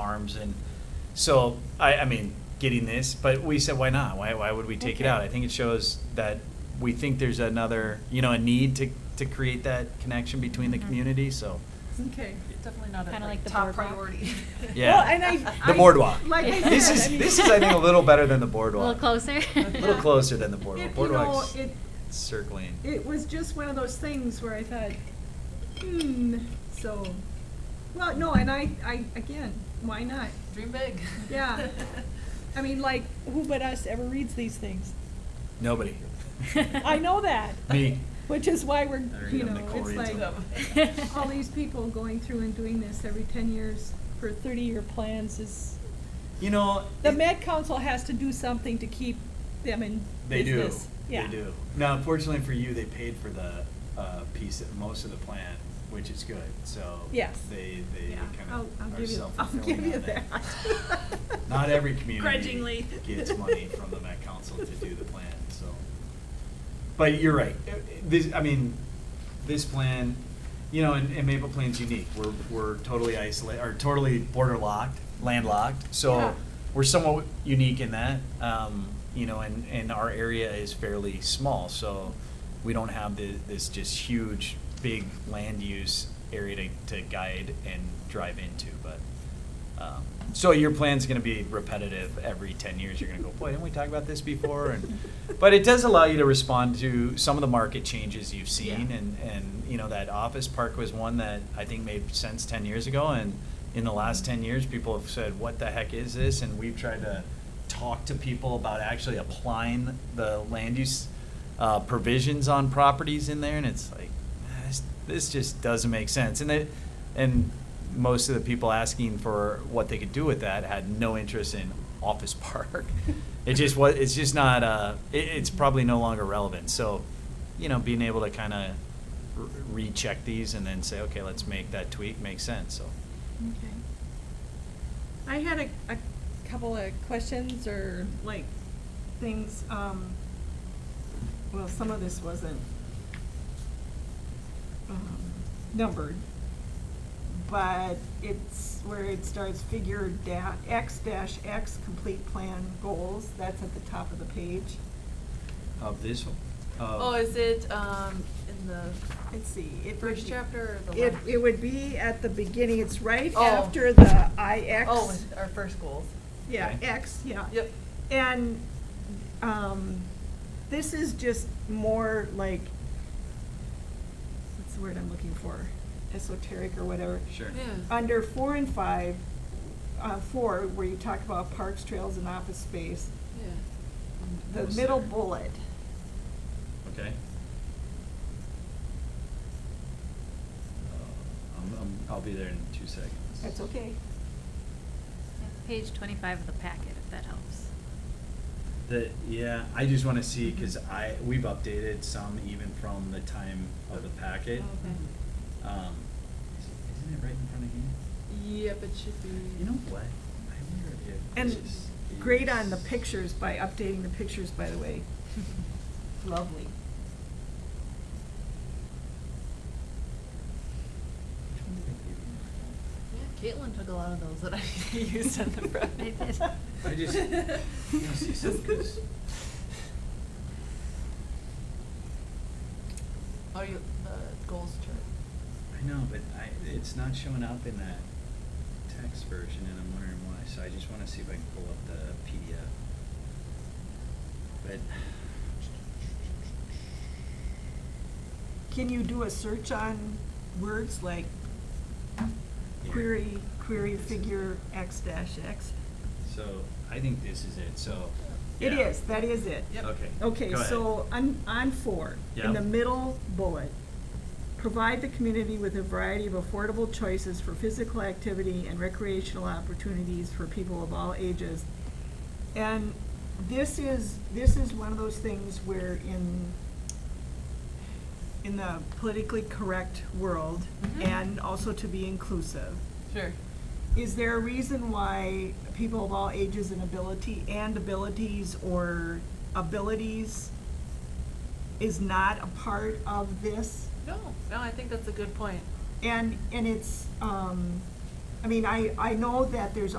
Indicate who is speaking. Speaker 1: terms, and so, I, I mean, getting this, but we said, why not? Why, why would we take it
Speaker 2: Okay.
Speaker 1: out? I think it shows that we think there's another, you know, a need to, to create that connection between the
Speaker 3: Mm-hmm.
Speaker 2: Mhm.
Speaker 1: community, so.
Speaker 3: Okay, definitely not
Speaker 2: Kinda
Speaker 3: a
Speaker 2: like the
Speaker 3: top
Speaker 2: boardwalk.
Speaker 3: priority.
Speaker 1: Yeah.
Speaker 3: Well, and I-
Speaker 1: The
Speaker 3: I-
Speaker 1: boardwalk.
Speaker 3: Like I
Speaker 2: Yeah.
Speaker 1: This
Speaker 3: said, I
Speaker 1: is,
Speaker 3: mean-
Speaker 1: this is, I think, a little better than the
Speaker 2: A
Speaker 1: boardwalk.
Speaker 2: little closer.
Speaker 1: A little closer than the boardwalk.
Speaker 3: It- you know,
Speaker 1: Boardwalk's
Speaker 3: it-
Speaker 1: circling.
Speaker 3: It was just one of those things where I thought, hmm, so, well, no, and I, I, again, why not?
Speaker 4: Dream big.
Speaker 3: Yeah. I mean, like, who but us ever reads these things?
Speaker 1: Nobody.
Speaker 3: I know that,
Speaker 1: Me.
Speaker 3: which is why we're,
Speaker 1: I read
Speaker 3: you
Speaker 1: them,
Speaker 3: know,
Speaker 1: Nicole
Speaker 3: it's
Speaker 1: reads
Speaker 3: like,
Speaker 1: them.
Speaker 3: all these people going through and doing this every ten years for thirty-year plans is,
Speaker 1: You know.
Speaker 3: the
Speaker 1: it-
Speaker 3: Met Council has to do something to keep them in
Speaker 1: They do.
Speaker 3: business.
Speaker 1: They
Speaker 3: Yeah.
Speaker 1: do. Now, unfortunately for you, they paid for the uh, piece, of- most of the plan, which is good, so.
Speaker 3: Yes.
Speaker 1: They, they
Speaker 3: Yeah, I'll,
Speaker 1: kind
Speaker 3: I'll
Speaker 1: of are
Speaker 3: give you, I'll give
Speaker 1: self-fulfilling
Speaker 3: you
Speaker 1: on that.
Speaker 3: that.
Speaker 1: Not every community
Speaker 3: Grudgingly.
Speaker 1: gets money from the Met Council to do the plan, so. But you're right. Uh, uh, This, I mean, this plan, you know, and, and Maple Plain's unique. We're, we're totally isolated, or totally border locked, landlocked.
Speaker 3: Yeah.
Speaker 1: So we're somewhat unique in that, um, you know, and, and our area is fairly small, so we don't have the, this just huge, big land use area to, to guide and drive into, but. Um, So your plan's gonna be repetitive every ten years, you're gonna go, boy, didn't we talk about this before? And, but it does allow you to respond to some of the market changes you've seen,
Speaker 4: Yeah.
Speaker 1: and, and, you know, that office park was one that I think made sense ten years ago, and in the last ten years, people have said, what the heck is this? And we've tried to talk to people about actually applying the land use uh, provisions on properties in there, and it's like, this, this just doesn't make sense. And it, and most of the people asking for what they could do with that had no interest in office park. It just was, it's just not, uh, it, it's probably no longer relevant. So, you know, being able to kind of recheck these and then say, okay, let's make that tweak, make sense, so.
Speaker 3: Okay. I had a, a couple of questions or like things, um, well, some of this wasn't um, numbered, but it's where it starts figure da- X dash X complete plan goals, that's at the top of the page.
Speaker 1: Of this one?
Speaker 4: Oh, is it, um, in the,
Speaker 3: Let's see, it would
Speaker 4: First
Speaker 3: be-
Speaker 4: chapter or the
Speaker 3: It,
Speaker 4: last?
Speaker 3: it would be at the beginning, it's right
Speaker 4: Oh.
Speaker 3: after the I X.
Speaker 4: oh, it's our first goals.
Speaker 3: Yeah,
Speaker 1: Okay.
Speaker 3: X, yeah.
Speaker 4: Yep.
Speaker 3: And, um, this is just more like, what's the word I'm looking for? Esoteric or whatever.
Speaker 1: Sure.
Speaker 4: Yeah.
Speaker 3: Under four and five, uh, four, where you talk about parks, trails, and office space,
Speaker 4: Yeah.
Speaker 3: the
Speaker 1: Those
Speaker 3: middle
Speaker 1: there.
Speaker 3: bullet,
Speaker 1: Okay. Uh, I'm, I'm, I'll be there in two seconds.
Speaker 3: that's okay.
Speaker 2: Page twenty-five of the packet, if that helps.
Speaker 1: The, yeah, I just wanna see, cause I, we've updated some even from the time of the packet.
Speaker 4: Oh.
Speaker 1: Um, is- isn't it right in front of you?
Speaker 4: Yep, it should be.
Speaker 1: You know what? I wonder if it.
Speaker 3: And
Speaker 1: is-
Speaker 3: great on the
Speaker 1: is-
Speaker 3: pictures by updating the pictures, by the way. Lovely.
Speaker 1: Which one did I
Speaker 4: Yeah, Caitlin took a lot of those that I used on the front.
Speaker 2: I did.
Speaker 1: I just- you know, see some of this.
Speaker 4: Oh, you, the goals chart.
Speaker 1: give you? I know, but I, it's not showing up in that text version and I'm wondering why, so I just wanna see if I can pull up the PDF. But.
Speaker 3: Can you do a search on words like
Speaker 1: here.
Speaker 3: query, query figure X dash X?
Speaker 1: So, I think this is it, so.
Speaker 3: It
Speaker 1: yeah.
Speaker 3: is, that is it.
Speaker 4: Yep.
Speaker 1: Okay.
Speaker 3: Okay,
Speaker 1: go ahead.
Speaker 3: so on, on four, in
Speaker 1: Yeah.
Speaker 3: the middle bullet, provide the community with a variety of affordable choices for physical activity and recreational opportunities for people of all ages. And this is, this is one of those things where in, in the politically correct world,
Speaker 1: Mm-hmm.
Speaker 4: Mhm.
Speaker 3: and also to be inclusive,
Speaker 4: Sure.
Speaker 3: is there a reason why people of all ages and ability, and abilities or abilities is not a part of this?
Speaker 4: No, no, I think that's a good point.
Speaker 3: And, and it's, um, I mean, I, I know that there's